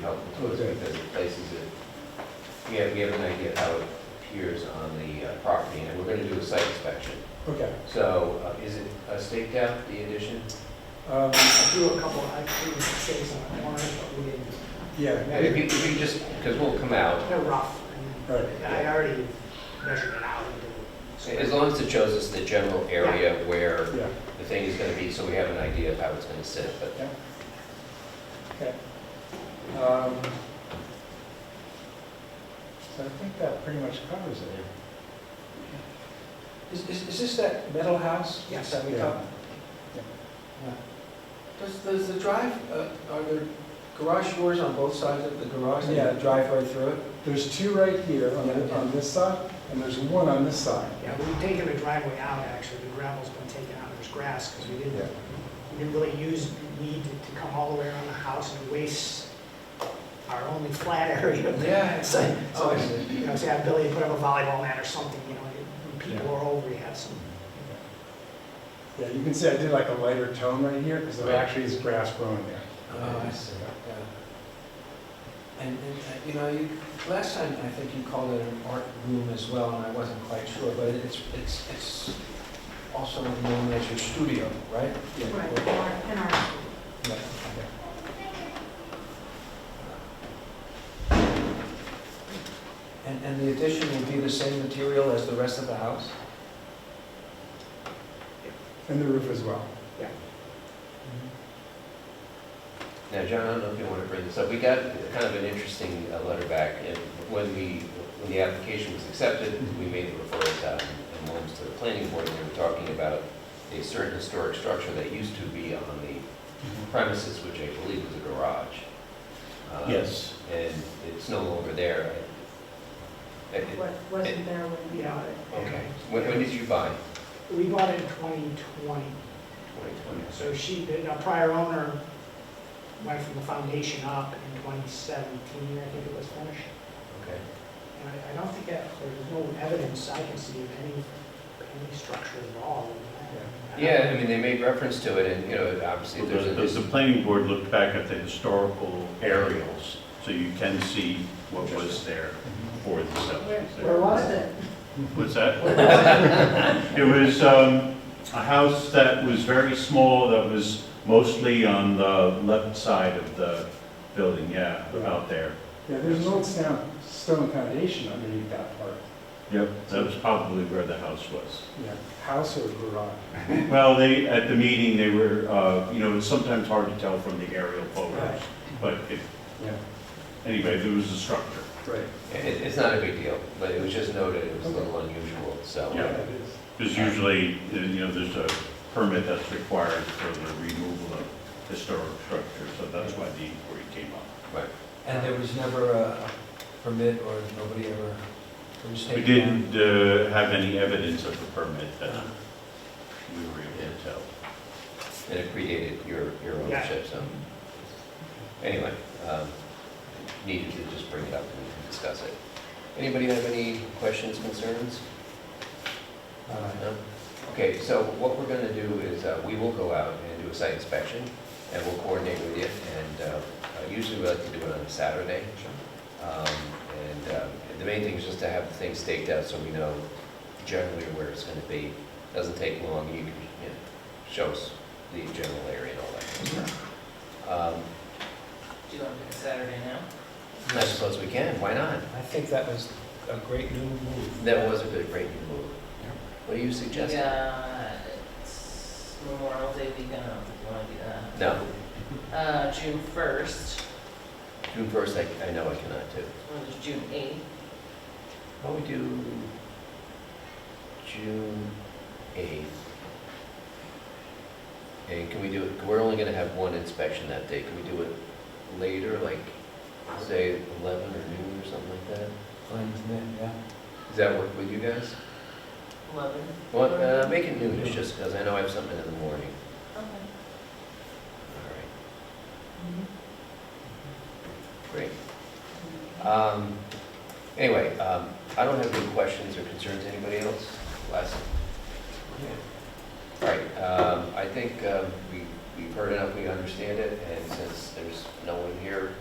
helpful to us Okay. because it places it, we have, we have an idea how it appears on the uh, property, and we're gonna do a site inspection. Okay. So, uh, is it uh, staked out, the addition? Um, I drew a couple, I drew shades on the corners, but we didn't, Yeah, And If you, if you just, because we'll come out, they're rough. I mean, Right. I already measured it out and did it. as long as it shows us the general area where yeah, the thing is gonna be, so we have an idea of how it's gonna sit, but okay. Um, So I think that pretty much covers it. Is, is is this that metal house? Yes. That we Yeah. talked? Yeah. Does, does the drive, uh, are there garage doors on both sides of the garage? and Yeah. the Drive right through it? There's two right here on the- on this side, and there's one on this side. Yeah, we've taken the driveway out, actually, the gravel's been taken out, there's grass, because we Yeah. didn't, we didn't really use, need to come all the way around the house and waste our only flat area of the Yeah. So, Oh, I so, see. you know, say, I Billy, put up a volleyball net or something, you know, when people are over, you have some, Yeah, you can see I did like a lighter tone right here, because there Right. actually is grass growing there. Oh, I see, yeah. And, and, uh, you know, you, last time, I think you called it an art room as well, and I wasn't quite sure, but it's, it's, it's also known as your studio, right? Right, or in our, Yeah. And, and the addition will be the same material as the rest of the house? And the roof as well. Mm-hmm. Now, John, I don't know if you want to bring this up, we got kind of an interesting uh, letter back, and when we, when the application was accepted, we made the referrals out in Williams to the planning board, and they were talking about a certain historic structure that used to be on the premises, which I believe was a garage. Um, Yes. And it's no longer there. I- I- what wasn't there when we Yeah. bought it. Okay, when, when did you buy? we bought it in twenty twenty, 2020. so she, the the prior owner went from the foundation up in twenty seventeen, I think it was finished. Okay. And I, I don't think that, there's no evidence I can see of any, any structure at all. in that. Yeah, I mean, they made reference to it, and, you know, obviously, The, there's a. the- the planning board looked back at the historical aerials, so you can see what was there for the settlers. Where was it? What's that? It was, um, a house that was very small, that was mostly on the left side of the building, yeah, about there. Yeah, there's an old stone, stone foundation underneath that part. Yep. That was probably where the house was. Yeah, house or garage? Well, they, at the meeting, they were, uh, you know, it's sometimes hard to tell from the aerial photos, Right. but it, Yeah, anyway, there was a structure. right. It, it's not a big deal, but it was just noted, it was a little unusual, so. Yeah. it is. Because usually, you know, there's a permit that's required for the removal of historic structures, so that's why the inquiry came up. And there was never a permit or nobody ever, it was We taken down? didn't uh, have any evidence of the permit that we were able to tell. And it predated your, your ownership, so. Anyway, um, needed to just bring it up and discuss it. Anybody have any questions, concerns? Uh, No? Okay, so what we're gonna do is, uh, we will go out and do a site inspection, and we'll coordinate with you, and, uh, uh, usually we like to do it on a Saturday. Um, and, um, the main thing is just to have the thing staked out so we know generally where it's gonna be. Doesn't take long, you can, you know, show us the general area and all that kind of stuff. Um, Do you want to pick a Saturday now? I suppose we can, why not? I think that was a great new move. That was a good, great new move. What do you suggest? Yeah, it's Memorial Day weekend, I don't think you want to do that. No, Uh, June first, June first, I, I know I cannot do. or there's June eighth, Why don't we do June eighth? And can we do it, we're only gonna have one inspection that day, can we do it later, like, say eleven or noon or something like that? Fine with me, yeah. Does that work with you guys? eleven. Well, uh, make it noon, it's just because I know I have something in the morning, Okay. all right, great. Um, anyway, um, I don't have any questions or concerns, anybody else? Last, all right, um, I think, um, we, we've heard enough, we understand it, and since there's no one here